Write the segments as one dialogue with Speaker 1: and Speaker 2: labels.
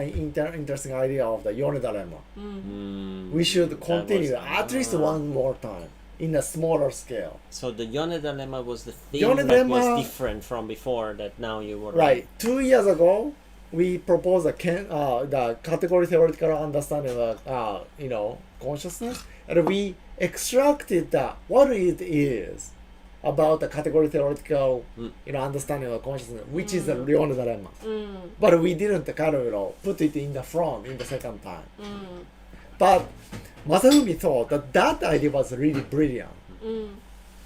Speaker 1: an inter- interesting idea of the Yonedaremon.
Speaker 2: う
Speaker 3: Mm,
Speaker 2: ん
Speaker 1: We should
Speaker 3: that
Speaker 1: continue
Speaker 3: was-
Speaker 1: at least
Speaker 3: Ah.
Speaker 1: one more time in a smaller scale.
Speaker 3: So the Yoneda Lemma was the thing that
Speaker 1: Yoneda Lemma-
Speaker 3: was different from before that now you were
Speaker 1: Right. Two years ago, we proposed a can, uh, the category theoretical understanding of uh, you know consciousness, and we extracted the, what it is about the category theoretical
Speaker 3: Mm.
Speaker 1: you know understanding of consciousness, which is the Leon's dilemma.
Speaker 2: うんうん
Speaker 1: But we didn't kind of you know, put it in the front in the second time.
Speaker 3: Mm.
Speaker 1: But Masafumi thought that that idea was really brilliant.
Speaker 3: Mm.
Speaker 2: うん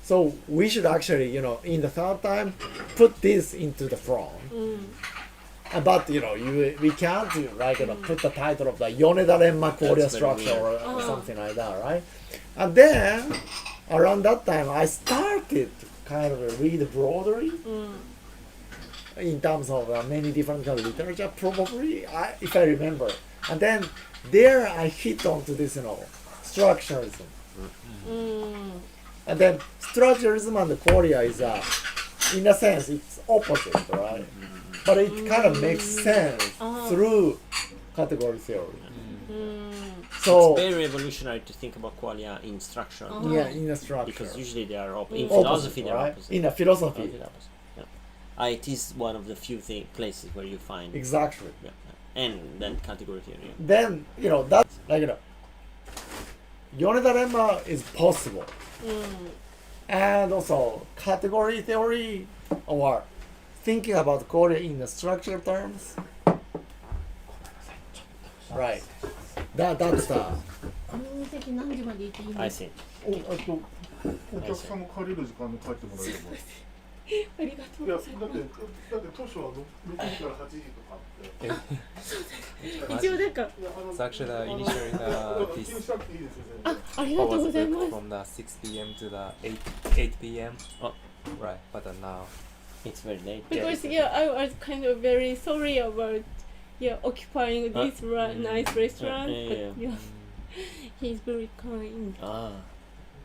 Speaker 1: So we should actually, you know, in the third time, put this into the front.
Speaker 2: うん
Speaker 3: Mm.
Speaker 1: Uh, But you know, you we can't do, like you know, put the title of the Yoneda Renma Korea
Speaker 3: That's very
Speaker 1: structure or,
Speaker 3: weird. Uh-huh.
Speaker 1: or
Speaker 2: Oh.
Speaker 1: something like that, right? And then around that time, I started to kind of read broadly
Speaker 2: うん
Speaker 1: in terms of uh, many different kind of literature, probably I, if I remember. And then there, I hit onto this, you know, structuralism.
Speaker 2: うん
Speaker 1: And then structuralism and Korea is, uh, in a sense, it's opposite, right? But it kind of makes sense
Speaker 2: Uh-huh.
Speaker 1: through category theory.
Speaker 2: うん
Speaker 1: So
Speaker 3: It's very revolutionary to think about qualia in structure
Speaker 2: Oh.
Speaker 1: yeah, in a structure.
Speaker 3: because usually they are op- in
Speaker 2: Opposite,
Speaker 3: philosophy they're
Speaker 1: right?
Speaker 3: opposite.
Speaker 1: In a
Speaker 3: Uh,
Speaker 1: philosophy,
Speaker 3: they're opposite. Yeah. Uh, it is one of the few thi- places where you find
Speaker 1: exactly.
Speaker 3: yeah, yeah. and then category theory. yeah.
Speaker 1: Then you know that like you know, Yoneda lemma is possible,
Speaker 2: うん
Speaker 1: and also category theory or thinking about Korea in the structure terms. Right. That that's the.
Speaker 2: 国民的何時までいていい
Speaker 1: Mm-hmm.
Speaker 2: の
Speaker 3: I
Speaker 2: あ
Speaker 3: see.
Speaker 4: おあとお客さんも借りる時間で帰ってもらえれば
Speaker 2: りがとう
Speaker 4: いや
Speaker 2: ご
Speaker 4: だっ
Speaker 2: ざ
Speaker 4: て
Speaker 2: い
Speaker 4: だって当初はろ6時から8時とかあっていや
Speaker 2: ます一応なんか
Speaker 4: あの
Speaker 5: It's actually the
Speaker 4: い
Speaker 5: initially
Speaker 4: や だ
Speaker 5: the
Speaker 4: から気
Speaker 5: this
Speaker 4: にしなくていいですよ全
Speaker 2: あ
Speaker 4: 然
Speaker 2: あり
Speaker 5: I
Speaker 2: がとうご
Speaker 5: was
Speaker 2: ざい
Speaker 5: back
Speaker 2: ます
Speaker 5: from the 6 p.m. to the 8 8 p.m.
Speaker 3: Oh.
Speaker 5: right. But uh, now
Speaker 3: It's very late.
Speaker 2: because yeah I was kind of very sorry about yeah occupying
Speaker 3: Uh,
Speaker 2: this ra-
Speaker 5: mm,
Speaker 2: nice restaurant
Speaker 3: yeah, yeah,
Speaker 2: but yeah he's very kind
Speaker 3: Ah,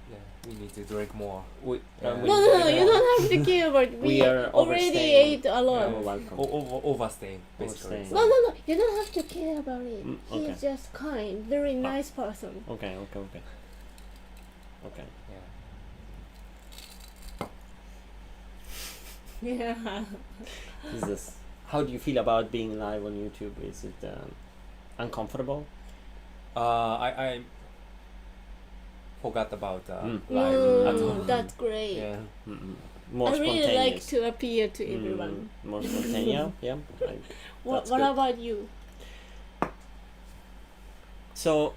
Speaker 5: yeah, we need to drink more. We,
Speaker 3: Yeah.
Speaker 5: we-
Speaker 2: no no no
Speaker 5: we
Speaker 2: you
Speaker 5: are
Speaker 2: don't have to care about
Speaker 3: we
Speaker 2: we
Speaker 3: are
Speaker 2: already
Speaker 3: overstaying.
Speaker 2: ate a lot
Speaker 3: You're Oh, welcome.
Speaker 5: o- over overstaying basically.
Speaker 3: Overstaying.
Speaker 2: no no no you don't have to care about it
Speaker 3: Mm, okay. Ah.
Speaker 2: he's just kind very nice person
Speaker 3: Okay, okay, okay. Okay.
Speaker 5: Yeah.
Speaker 2: yeah
Speaker 3: Is this? How do you feel about being live on YouTube? Is it um, uncomfortable?
Speaker 5: Uh, I I forgot about uh,
Speaker 3: Mm.
Speaker 5: live at
Speaker 3: Mm.
Speaker 5: home.
Speaker 2: mm, that's great
Speaker 5: Yeah.
Speaker 3: Mm-mm. More
Speaker 2: I really like
Speaker 3: spontaneous.
Speaker 2: to appear to
Speaker 3: Mm,
Speaker 2: everyone
Speaker 3: more spontaneous. yeah. I-
Speaker 2: what,
Speaker 3: That's
Speaker 2: what
Speaker 3: good.
Speaker 2: about you
Speaker 3: so,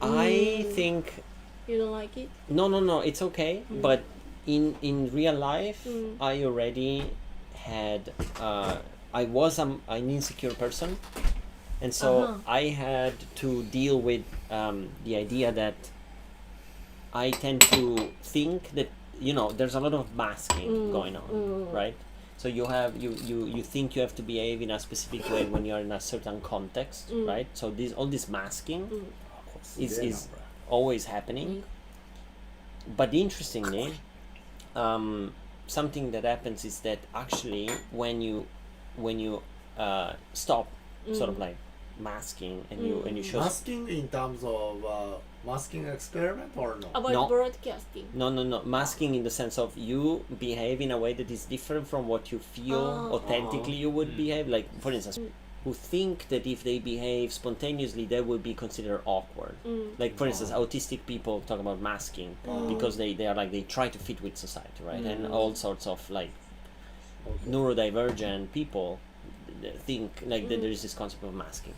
Speaker 3: I
Speaker 2: Mm.
Speaker 3: think
Speaker 2: you don't like it
Speaker 3: no, no, no. It's okay.
Speaker 2: Mm.
Speaker 3: But in in real life,
Speaker 2: Mm.
Speaker 3: I already had. Uh, I was um, an insecure person, and so
Speaker 2: Uh-huh.
Speaker 3: I had to deal with um, the idea that I tend to think that you know there's a lot of masking
Speaker 2: Mm,
Speaker 3: going on,
Speaker 2: mm.
Speaker 3: right? So you have you, you you think you have to behave in a specific way when you're in a certain context,
Speaker 2: Mm.
Speaker 3: right? So this all this masking
Speaker 2: Mm.
Speaker 3: is is always happening. But interestingly, um, something that happens is that actually when you when you uh, stop sort of like masking and you and you show
Speaker 1: Masking in terms of uh, masking experiment or no?
Speaker 2: about
Speaker 3: No.
Speaker 2: broadcasting
Speaker 3: No, no, no. Masking in the sense of you behave in a way that is different from what you feel
Speaker 2: Oh.
Speaker 3: authentically you would
Speaker 5: Mm.
Speaker 3: behave. Like, for instance, who think that if they behave spontaneously, they would be considered awkward.
Speaker 2: mm.
Speaker 3: Like, for instance,
Speaker 1: Oh.
Speaker 3: autistic people talk about masking
Speaker 2: Oh.
Speaker 3: because they, they are like, they try to fit with society, right? And
Speaker 2: Mm.
Speaker 3: all sorts of like
Speaker 1: Okay.
Speaker 3: neurodivergent people th- think like that
Speaker 2: Mm.
Speaker 3: there is this concept of masking.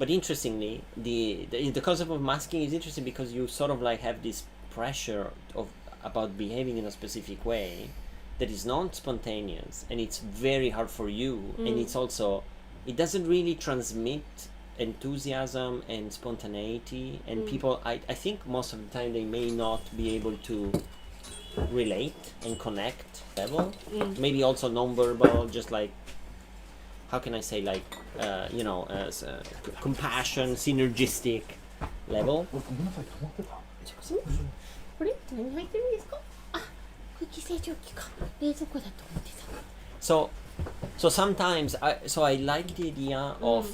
Speaker 3: But interestingly, the, the the concept of masking is interesting because you sort of like have this pressure of about behaving in a specific way that is non spontaneous and it's very hard for you and
Speaker 2: Mm.
Speaker 3: it's also it doesn't really transmit enthusiasm and spontaneity and
Speaker 2: Mm.
Speaker 3: people I, I think most of the time they may not be able to relate and connect level
Speaker 2: Mm.
Speaker 3: maybe also non-verbal just like how can i say like uh, you know uh, s- uh, c- compassion synergistic level
Speaker 4: 俺ごめんなさい止まってた
Speaker 2: これ何入ってるんですかあ空気清浄機か冷蔵庫だと思ってた
Speaker 3: so So sometimes I so I like the idea of